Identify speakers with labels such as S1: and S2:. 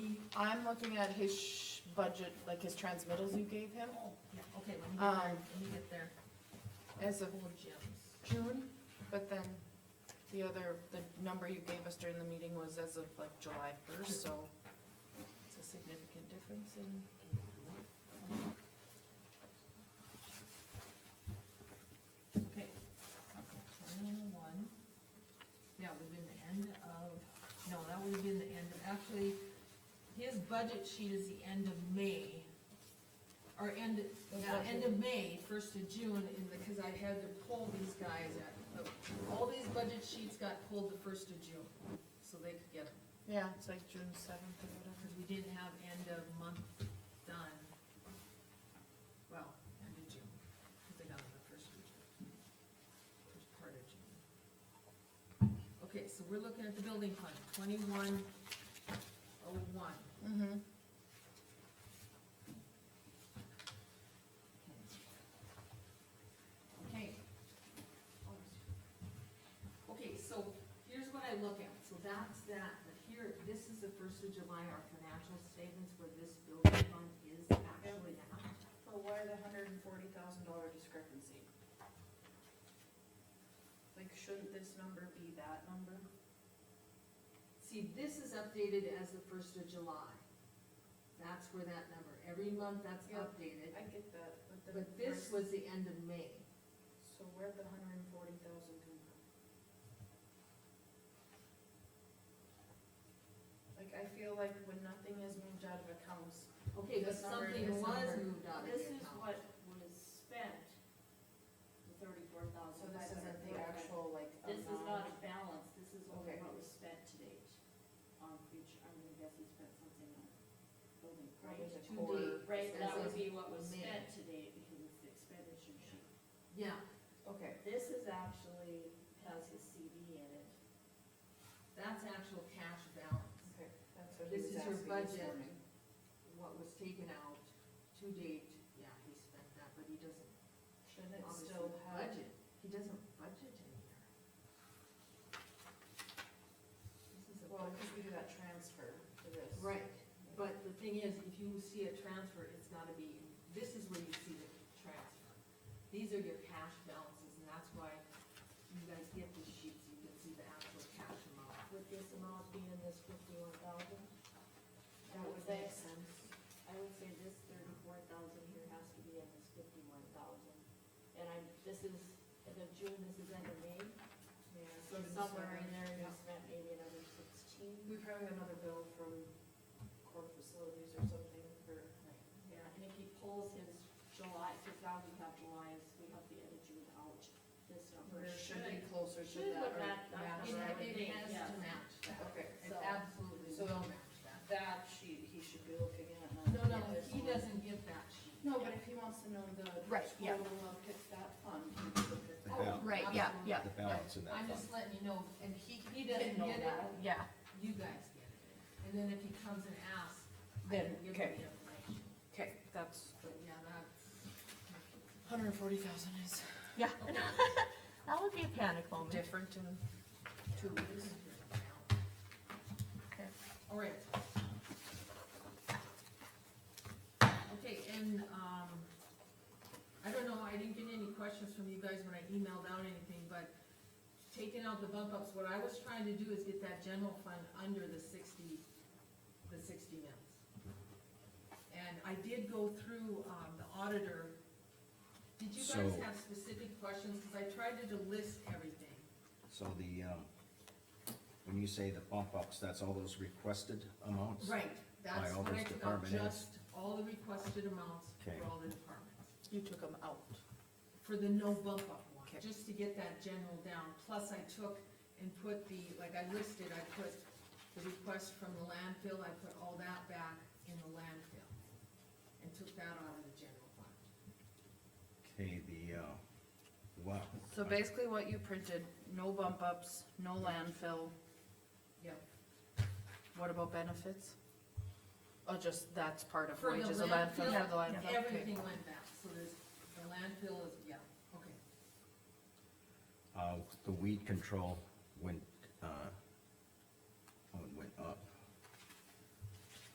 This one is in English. S1: I'm looking at his sh- budget, like his transmittals you gave him,
S2: Oh, yeah, okay, when you get there,
S1: Um,
S2: when you get there,
S1: as of
S2: whole gyms.
S1: June, but then the other, the number you gave us during the meeting was as of like July first, so it's a significant difference in.
S2: Okay. Twenty-one. That would have been the end of, no, that would have been the end of, actually, his budget sheet is the end of May. Or end, yeah, end of May, first of June, in the, cause I had to pull these guys at, all these budget sheets got pulled the first of June. So they could get 'em.
S1: Yeah, it's like June seventh or whatever.
S2: Because we didn't have end of month done. Well, end of June, because they got it the first of June. First part of June. Okay, so we're looking at the building fund, twenty-one oh one.
S1: Mm-hmm.
S2: Okay. Okay, so here's what I look at, so that's that, but here, this is the first of July, our financial statements where this building fund is actually at.
S3: So why the hundred and forty thousand dollar discrepancy? Like, shouldn't this number be that number?
S2: See, this is updated as the first of July. That's where that number, every month that's
S3: Yeah.
S2: updated,
S3: I get that, but the.
S2: but this
S3: rest-
S2: was the end of May.
S3: So where'd the hundred and forty thousand come from? Like, I feel like when nothing is moved out of accounts,
S2: Okay, but
S3: This number and
S2: something
S3: this
S2: was
S3: number.
S2: moved out of the
S4: This is
S2: account.
S4: what was spent, the thirty-four
S3: so
S4: thousand
S3: this
S4: five
S3: isn't
S4: hundred
S3: the
S4: forty-five.
S3: actual, like,
S4: This is not a
S3: amount.
S4: balance, this is only
S3: Okay.
S4: what was spent to date on future, I'm gonna guess he spent something on building.
S3: Right, it's
S4: projects.
S3: a
S2: To
S3: quarter.
S2: date.
S4: Right, that
S2: As
S4: would
S2: of
S4: be what was
S2: May.
S4: spent to date because it's the expenditure sheet.
S2: Yeah,
S3: Okay,
S4: This is actually, has his CD in it.
S2: that's actual cash balance,
S3: okay, that's what he was
S2: This is your
S3: asking this
S2: budget.
S3: morning.
S2: what was taken out to date, yeah, he spent that, but he doesn't
S3: Shouldn't it
S2: obviously
S3: still have?
S2: budget, he doesn't budget in here. This is a
S3: Well,
S2: budget.
S3: because we do that transfer to this.
S2: Right, but the thing is, if you see a transfer, it's gotta be, this is where you see the transfer. These are your cash balances, and that's why you guys get these sheets, you can see the actual cash amount.
S4: With this amount being this fifty-one thousand,
S3: That would make sense.
S4: I would say this thirty-four thousand here has to be in this fifty-one thousand. And I'm, this is, end of June, this is end of May,
S3: Yeah,
S4: so somewhere in there, you spent maybe another sixteen.
S3: We probably have another bill from core facilities or something for,
S4: Yeah, and if he pulls his July, because now we have July, is we have the end of June out, this number
S3: or should be
S4: should.
S3: closer to
S4: should
S3: that.
S4: would
S3: or
S4: not- not
S3: match
S4: come
S3: that.
S4: out.
S2: It, it has to
S4: Yeah.
S2: match that,
S3: Okay,
S2: it
S4: So-
S2: absolutely
S3: so-
S2: will match that.
S3: that sheet he should be looking at, not
S2: No, no,
S3: at this
S2: he
S3: one.
S2: doesn't get that sheet.
S3: No, but if he wants to know the
S1: Right, yeah.
S3: total of it- that fund, he would look at that.
S5: Yeah.
S1: Oh, Right, yeah, yeah,
S5: the balance in that
S2: I'm
S5: fund.
S2: just letting you know, and he, he
S4: Didn't
S2: doesn't
S4: know
S2: get it,
S4: that.
S1: Yeah,
S2: you guys get it, and then if he comes and asks, I
S1: Then,
S2: can give
S1: okay.
S2: him the information.
S1: okay, that's.
S2: But yeah, that's.
S1: Hundred and forty thousand is.
S4: Yeah. That would be a panic
S1: Different in two weeks.
S2: All right. Okay, and, um, I don't know, I didn't get any questions from you guys when I emailed out anything, but taking out the bump ups, what I was trying to do is get that general fund under the sixty, the sixty mils. And I did go through, um, the auditor. Did you guys
S5: So-
S2: have specific questions? Cause I tried to list everything.
S5: So the, um, when you say the bump ups, that's all those requested amounts?
S2: Right, that's
S5: all
S2: what I
S5: those
S2: took out,
S5: department heads.
S2: just all the requested amounts for
S5: Okay.
S2: all the departments,
S1: You took them out.
S2: for the no bump up one,
S1: Okay.
S2: just to get that general down. Plus I took and put the, like I listed, I put the request from the landfill, I put all that back in the landfill. And took that out of the general fund.
S5: Okay, the, uh, wow.
S1: So basically what you printed, no bump ups, no landfill,
S2: Yep.
S1: what about benefits? Oh, just that's part of
S2: For the
S1: wages, a landfill for the
S2: landfill,
S1: landfill. okay.
S2: Everything went back, so there's, the landfill is, yeah, okay.
S5: Uh, oh, the weed control went, uh,